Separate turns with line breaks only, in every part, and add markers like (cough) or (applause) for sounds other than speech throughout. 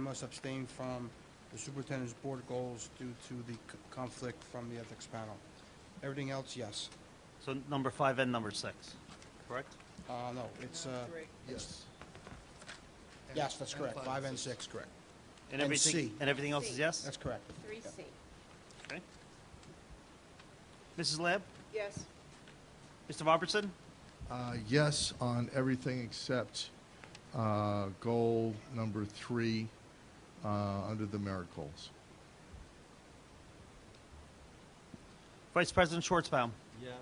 must abstain from the superintendent's board goals due to the c- conflict from the ethics panel. Everything else, yes.
So number five and number six, correct?
Uh, no, it's, uh,
Yes.
yes, that's correct. Five and six, correct. And
everything-
C.
And everything else is yes?
That's correct.
Three C.
Okay. Mrs. Lab?
Yes.
Mr. Robertson?
Uh, Yes on everything except uh, goal number three uh, under the merit goals.
Vice President Schwartzbaum?
Yes.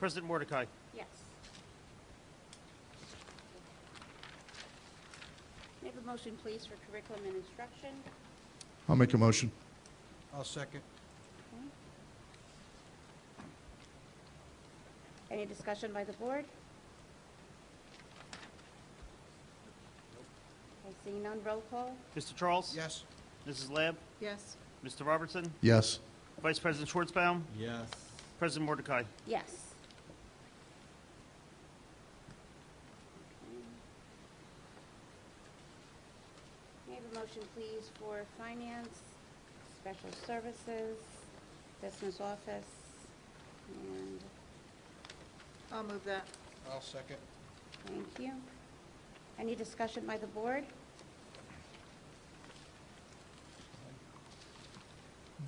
President Mordecai?
Yes. May I have a motion, please, for curriculum and instruction?
I'll make a motion.
I'll second.
Any discussion by the board? Okay, seeing none, roll call?
Mr. Charles?
Yes,
Mrs. Lab?
Yes.
Mr. Robertson?
Yes.
Vice President Schwartzbaum?
Yes.
President Mordecai?
Yes. May I have a motion, please, for finance, special services, business office, and
I'll move that.
I'll second.
thank you. Any discussion by the board?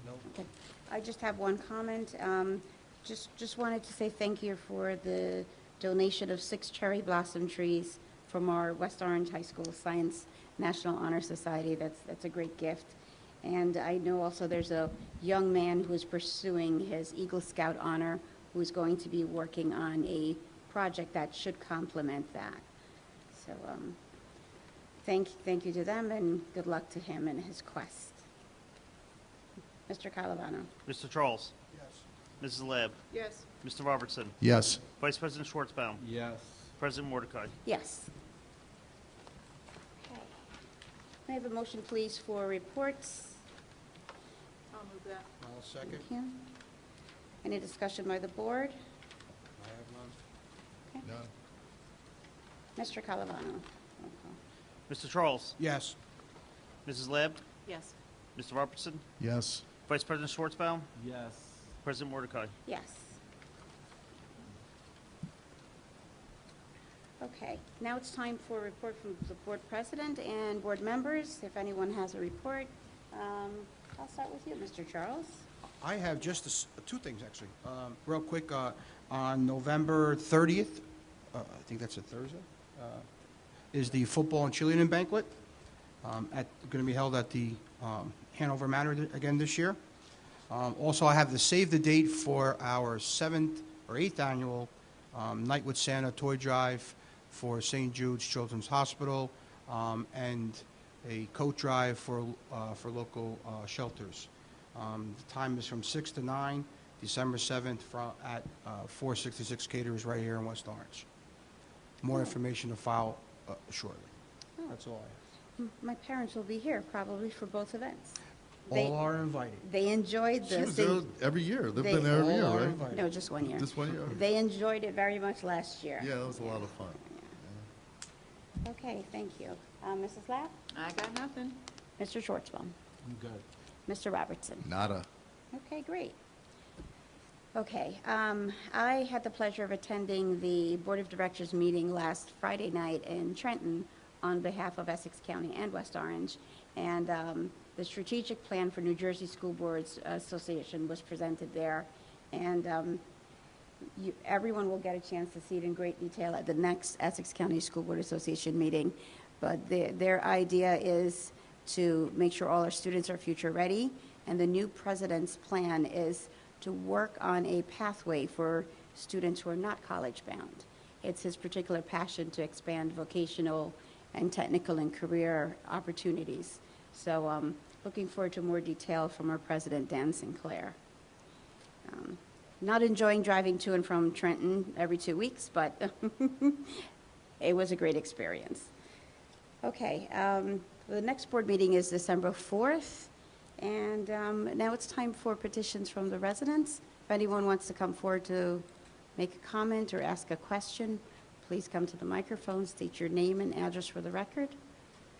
No.
Okay. I just have one comment. Um, Just, just wanted to say thank you for the donation of six cherry blossom trees from our West Orange High School Science National Honor Society. That's, that's a great gift. And I know also there's a young man who is pursuing his Eagle Scout honor, who's going to be working on a project that should complement that. So um, thank, thank you to them, and good luck to him in his quest. Mr. Calavano?
Mr. Charles?
Yes.
Mrs. Lab?
Yes.
Mr. Robertson?
Yes.
Vice President Schwartzbaum?
Yes.
President Mordecai?
Yes. May I have a motion, please, for reports?
I'll move that.
I'll second.
Thank you. Any discussion by the board?
I have none.
None.
Mr. Calavano? roll call.
Mr. Charles?
Yes,
Mrs. Lab?
Yes.
Mr. Robertson?
Yes.
Vice President Schwartzbaum?
Yes.
President Mordecai?
Yes. Okay, now it's time for a report from the board president and board members. If anyone has a report, um, I'll start with you, Mr. Charles.
I have just a s- two things, actually. Um, Real quick, uh, on November 30th, uh, I think that's a Thursday, uh, is the football and cheerleading banquet um, at, going to be held at the um, Hanover Manor th- again this year. Um, Also, I have the save the date for our seventh or eighth annual um, Night with Santa toy drive for St. Jude's Children's Hospital um, and a coat drive for, uh, for local uh, shelters. Um, The time is from 6 to 9, December 7th, fro- at uh, 466 Caterers right here in West Orange. More information to file uh, shortly. Oh, That's all I
M- My parents will be here probably for both events.
have.
They,
All are invited.
they enjoyed
She
the.
was
Saint-
there every year. They've been
they-
there every
All are
year, right?
invited.
No, just one year.
This one year?
They enjoyed it very much last year.
Yeah, that was a lot of fun.
Okay, thank you. Uh, Mrs. Lapp,
I got nothing.
Mr. Schwartzbaum,
I'm good.
Mr. Robertson.
Nada.
Okay, great. Okay, um, I had the pleasure of attending the Board of Directors meeting last Friday night in Trenton on behalf of Essex County and West Orange. And, um, the strategic plan for New Jersey School Boards Association was presented there. And, um, you, everyone will get a chance to see it in great detail at the next Essex County School Board Association meeting. But their, their idea is to make sure all our students are future-ready, and the new president's plan is to work on a pathway for students who are not college-bound. It's his particular passion to expand vocational and technical and career opportunities. So, um, looking forward to more detail from our president, Dan Sinclair. Um, Not enjoying driving to and from Trenton every two weeks, but (laughs) it was a great experience. Okay, um, the next board meeting is December 4th, and um, now it's time for petitions from the residents. If anyone wants to come forward to make a comment or ask a question, please come to the microphone, state your name and address for the record.